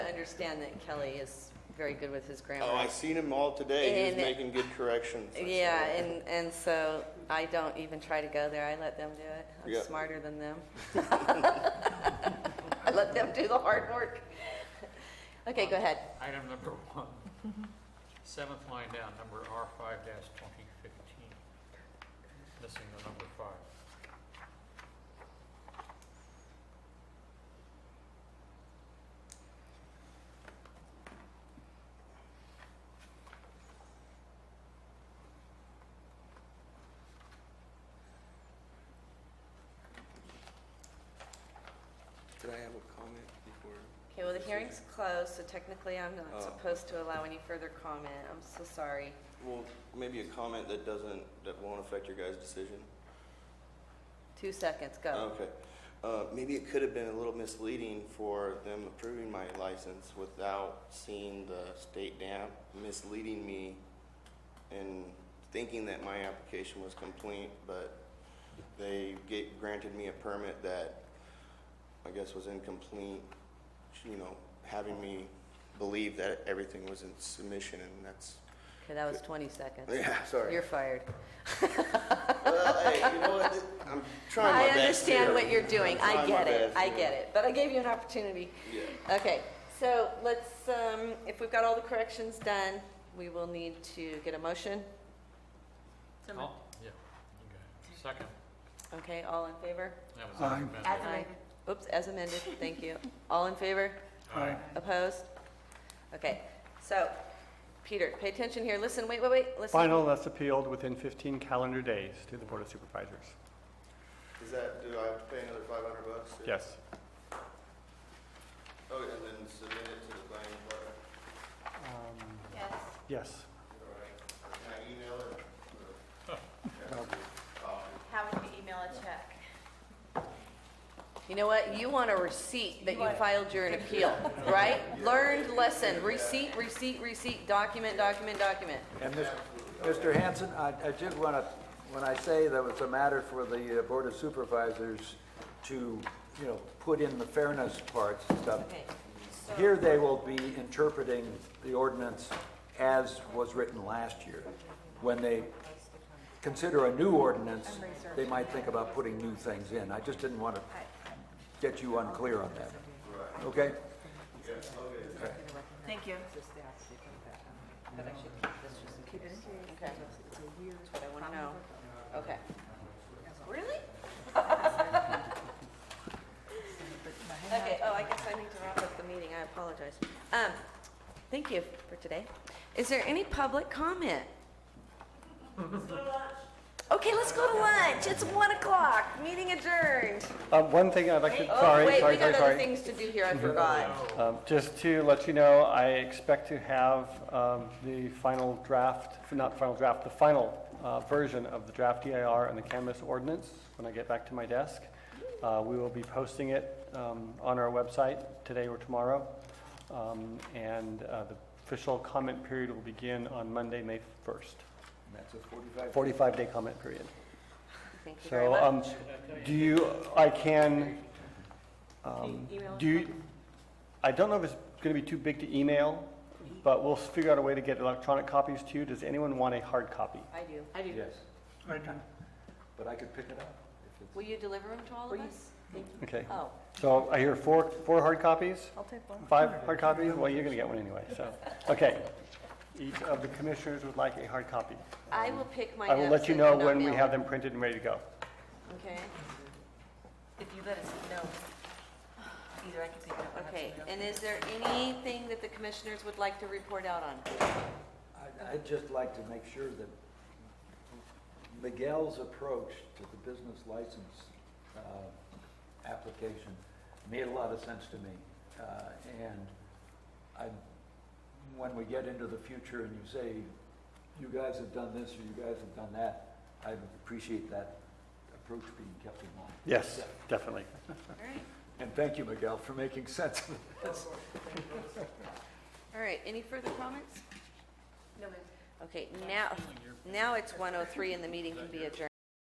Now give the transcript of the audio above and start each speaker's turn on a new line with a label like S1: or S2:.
S1: understand that Kelly is very good with his grammar.
S2: Oh, I seen him all today. He was
S1: And-
S2: making good corrections. I saw
S1: Yeah,
S2: that.
S1: and, and so I don't even try to go there. I let them do it.
S2: Yeah.
S1: I'm smarter than them. I let them do the hard work. Okay, go ahead.
S3: Item number one, seventh line down, number R five dash twenty fifteen. Missing the number five.
S2: Did I have a comment before?
S1: Okay, well, the hearing's closed, so technically I'm
S2: Oh.
S1: not supposed to allow any further comment. I'm so sorry.
S2: Well, maybe a comment that doesn't, that won't affect your guys' decision?
S1: Two seconds, go.
S2: Okay. Uh, maybe it could have been a little misleading for them approving my license without seeing the state dam, misleading me and thinking that my application was complete, but they ga- granted me a permit that I guess was incomplete, you know, having me believe that everything was in submission and that's,
S1: Okay, that was 20 seconds.
S2: yeah, sorry.
S1: You're fired.
S2: Well, hey, you know what? I'm trying my
S1: I
S2: best
S1: understand
S2: here.
S1: what you're doing.
S2: I'm
S1: I
S2: trying my
S1: get it.
S2: best,
S1: I
S2: you know.
S1: get it. But I gave you an opportunity.
S2: Yeah.
S1: Okay, so let's, um, if we've got all the corrections done, we will need to get a motion.
S3: Oh, yeah, you got it. Second,
S1: Okay, all in favor?
S3: that was
S4: Aye.
S3: recommended.
S1: As amended. Oops, as amended, thank you. All in favor?
S4: Uh,
S3: Aye.
S1: Opposed? Okay, so, Peter, pay attention here. Listen, wait, wait, wait, listen.
S4: Final unless appealed within 15 calendar days to the Board of Supervisors.
S2: Is that, do I have to pay another five hundred bucks? to-
S4: Yes.
S2: Oh, and then submit it to the planning department?
S5: Yes.
S4: Yes.
S2: All right. Can I email it? Um, Or-
S5: How would you email a check?
S1: You know what? You want a receipt that
S5: You
S1: you
S5: want-
S1: filed your appeal, right? Learned lesson, receipt, receipt, receipt, document, document, document.
S6: And Mis- Mr. Hanson, I I did want to, when I say that it's a matter for the uh, Board of Supervisors to, you know, put in the fairness parts and stuff,
S1: Okay,
S6: here they will be interpreting the ordinance as was written last year. When they consider a new ordinance, they might think about putting new things in. I just didn't want to get you unclear on that. Okay?
S5: Thank you.
S1: okay. That's what I want to know. Okay. Really? Okay, oh, I guess I need to wrap up the meeting. I apologize. Um, thank you for today. Is there any public comment? Okay, let's go to lunch. It's one o'clock. Meeting adjourned.
S4: Um, One thing I'd like to,
S1: Oh,
S4: sorry,
S1: wait, we
S4: sorry, sorry,
S1: got other
S4: sorry.
S1: things to do here. I forgot.
S4: Um, Just to let you know, I expect to have um, the final draft, not final draft, the final uh, version of the draft DIR and the canvas ordinance when I get back to my desk. Uh, We will be posting it um, on our website today or tomorrow. Um, And uh, the official comment period will begin on Monday, May 1st.
S6: And that's a 45
S4: 45-day comment period.
S1: Thank you very
S4: So,
S1: much.
S4: um, do you, I can, um, do you, I don't know if it's gonna be too big to email, but we'll figure out a way to get electronic copies to you. Does anyone want a hard copy?
S1: I do.
S6: Yes. But I could pick it up. if it's-
S1: Will you deliver them to all of us?
S4: Okay,
S1: Oh,
S4: so I hear four, four hard copies,
S1: I'll take one.
S4: five hard copies? Well, you're gonna get one anyway, so, okay. Each of the commissioners would like a hard copy.
S1: I will pick mine
S4: I
S1: up.
S4: will let
S1: so
S4: you
S1: I
S4: know
S1: cannot
S4: when we
S1: mail
S4: have them printed and ready to go.
S1: Okay,
S5: If you let us know, either I can pick it up. or have
S1: okay.
S5: somebody else.
S1: And is there anything that the commissioners would like to report out on?
S6: I- I'd just like to make sure that Miguel's approach to the business license uh, application made a lot of sense to me. Uh, And I, when we get into the future and you say, you guys have done this or you guys have done that, I appreciate that approach being kept in mind.
S4: Yes, definitely.
S1: All right,
S6: And thank you, Miguel, for making sense of this.
S1: all right. Any further comments?
S5: No, ma'am.
S1: Okay, now, now it's 1:03 and the meeting can be adjourned.